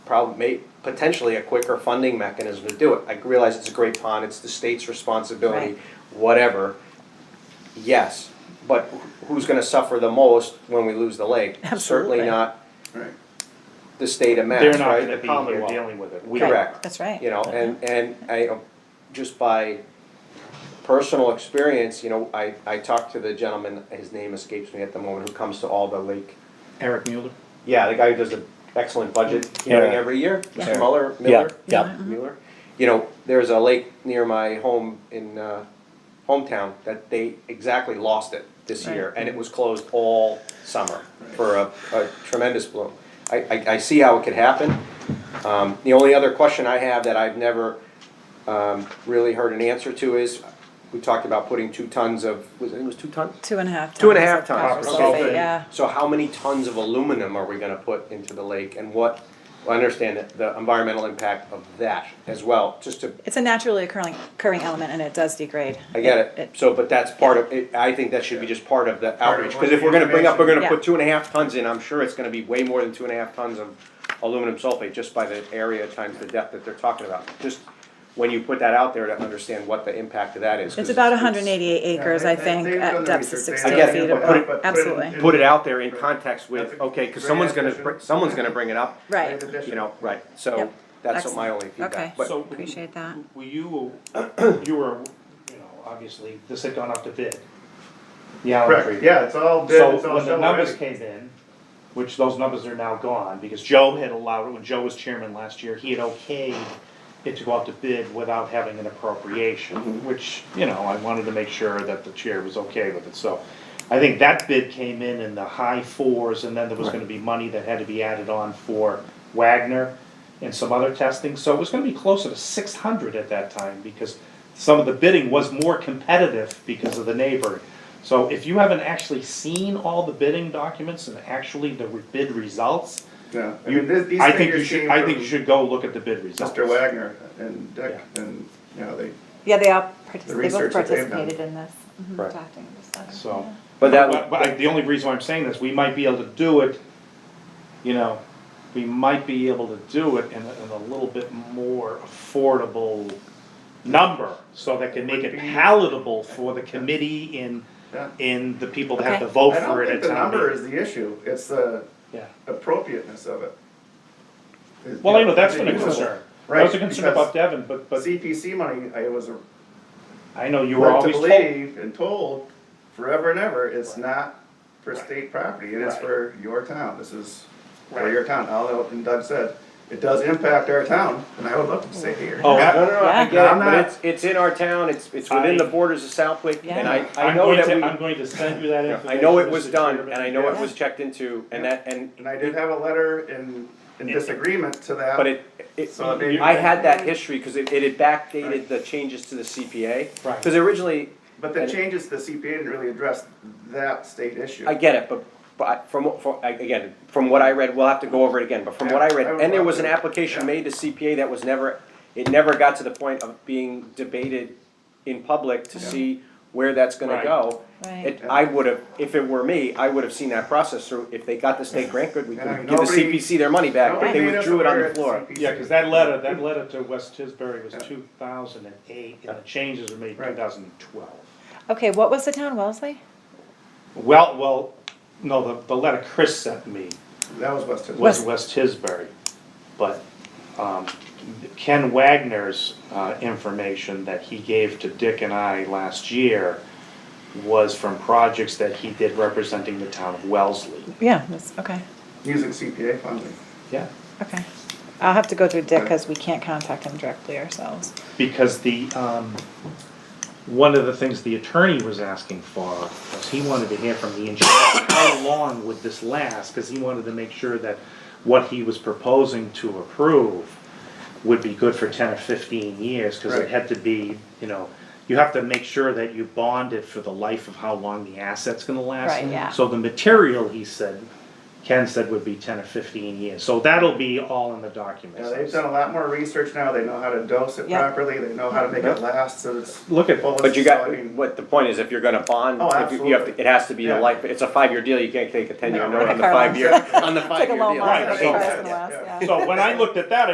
probably may, potentially a quicker funding mechanism to do it. I realize it's a great pond, it's the state's responsibility, Right. whatever. Yes, but who's gonna suffer the most when we lose the lake? Absolutely. Certainly not Right. the state of Mass, They're not right? gonna be here Commonwealth. dealing with it. We Correct. are. That's right. You know, and, and I, uh, just by personal experience, you know, I, I talked to the gentleman, his name escapes me at the moment, who comes to all the lake. Eric Mueller? Yeah, the guy who does an excellent budget hearing Yeah. every year, Yeah. Mm-hmm. Mr. Muller, Yeah, Miller, yeah. Mueller. You know, there's a lake near my home in, uh, hometown that they exactly lost it this Right. year, and it was closed all summer for a, a tremendous bloom. I, I, I see how it could happen. Um, the only other question I have that I've never, um, really heard an answer to is, we talked about putting two tons of, was it, it was two tons? Two and a half times. Two and a half of times, copper okay. sulfate, Yeah, So how many tons of aluminum are we gonna put into the lake and what, I understand that the environmental impact of that as well, just to, it's a naturally occurring, occurring element and it does degrade. I get it. So, but that's part of, it. I think that should be just part of the Part of outreach, what cause if the we're gonna bring up, we're gonna information- put two and a half tons in, I'm sure it's gonna be way more than two and a half tons of aluminum sulfate, just by the area times the depth that they're talking about. Just when you put that out there to understand what the impact of that is. 'cause It's about hundred and eighty-eight Yeah, acres, they- I they- think, they've done at the depths of research. sixty I get feet it, of but put water, it- but put it in- absolutely. Put it out there in context with, That's a okay, cause great someone's gonna, addition. br- someone's gonna bring it up. Right. You know, right, so Yep. that's my only Okay. feedback, but, So- Appreciate that. Were you, you were, you know, obviously, this had gone up to bid. The Allen Tree. Correct, yeah, it's all bid, it's So all when the shovel numbers ready. came in, which those numbers are now gone, because Joe had allowed, it when Joe was chairman last year, he had okayed it to go out to bid without having an Mm-hmm. appropriation, which, you know, I wanted to make sure that the chair was okay with it, so. I think that bid came in in the high fours, and then there was gonna be money that had to be added on for Wagner and some other testing, so it was gonna be closer to six hundred at that time, because some of the bidding was more competitive because of the neighboring. So if you haven't actually seen all the bidding documents and actually the re- bid results, Yeah, I mean, this- you, these I think you figures should, came I think from you should go look at the bid results. Mr. Wagner and Dick, and, you know, they, Yeah, they all partici- The they both research that they've done. participated in this. Mhm, Mm-hmm. Right. drafting of this letter. So, but that. but, but I- the only reason why I'm saying this, we might be able to do it, you know, we might be able to do it in a, in a little bit more affordable number, so that can make it palatable for the committee and, yeah. and the people that have to Okay. vote I for don't it at think town meeting. the number is the issue, it's the Yeah. appropriateness of it. Is- Well, I know, is that's it been a usable? concern. That Right, was a concern about because Devon, but, but CPC money, I was I know you were led to always told. believe and told forever and ever, it's not for Right. state property, it is Right. for your town, this is for Right. your town, although, and Doug said, it does impact our town, and I would love to stay here. Oh, No, no, no, I Yeah. get it, I'm but not- it's, it's in our town, it's, it's within the I- borders of Southwick, and I, I I'm know going that to- we, I'm going to send you that yeah, information. I know it was Mr. done, Chairman. and I know it Yeah. was checked into, and that, and, And I did have a letter in, in It- disagreement to that. but it, it, So maybe- I had that history, cause it, it had backdated the changes to the CPA. Right. Cause originally, But the and- changes to the CPA didn't really address that state issue. I get it, but, but from, from, again, from what I read, we'll have to go over it again, but from what I Yeah, I read, would and there love was an to, application yeah. made to CPA that was never, it never got to the point of being debated in public to Yeah. see where that's gonna Right. go. Right. It, I would have, if it were me, I would have seen that process through, if they got the state grant good, we Yeah, could give the nobody- CPC their money back, but Nobody they made us withdrew it on aware the of floor. CPC. Yeah, cause that letter, that letter to West Tisbury was Yeah. two thousand and eight, and the Yeah. changes were made Right. two thousand and twelve. Okay, what was the town, Wellesley? Well, well, no, the, the letter Chris sent me That was West was Tisbury. West Tisbury, but, um, Ken Wagner's, uh, information that he gave to Dick and I last year was from projects that he did representing the town of Wellesley. Yeah, that's, okay, using CPA funding. Yeah. okay. I'll have to go through Dick because we can't contact him directly ourselves. because the, um, one of the things the attorney was asking for was he wanted to hear from the engineer, how long would this last? Cause he wanted to make sure that what he was proposing to approve would be good for ten or fifteen years, cause it Right. had to be, you know, you have to make sure that you bond it for the life of how long the asset's gonna last. Right, yeah. So the material, he said, Ken said would be ten or fifteen years, so that'll be all in the documents. Yeah, they've done a lot more research now, they know how to dose it Yeah. properly, they know how to make Yep. it last, so it's. Look at- well, But you got, so, I mean, what the point is, if you're gonna bond, Oh, if you- you have to- absolutely. it has to be a Yeah. life, it's a five-year deal, you can't take a ten-year Yeah, note like on a the car loan. five-year, on the five-year Take a deal. loan Right, loss, so- first and last, yeah. So when I looked at that,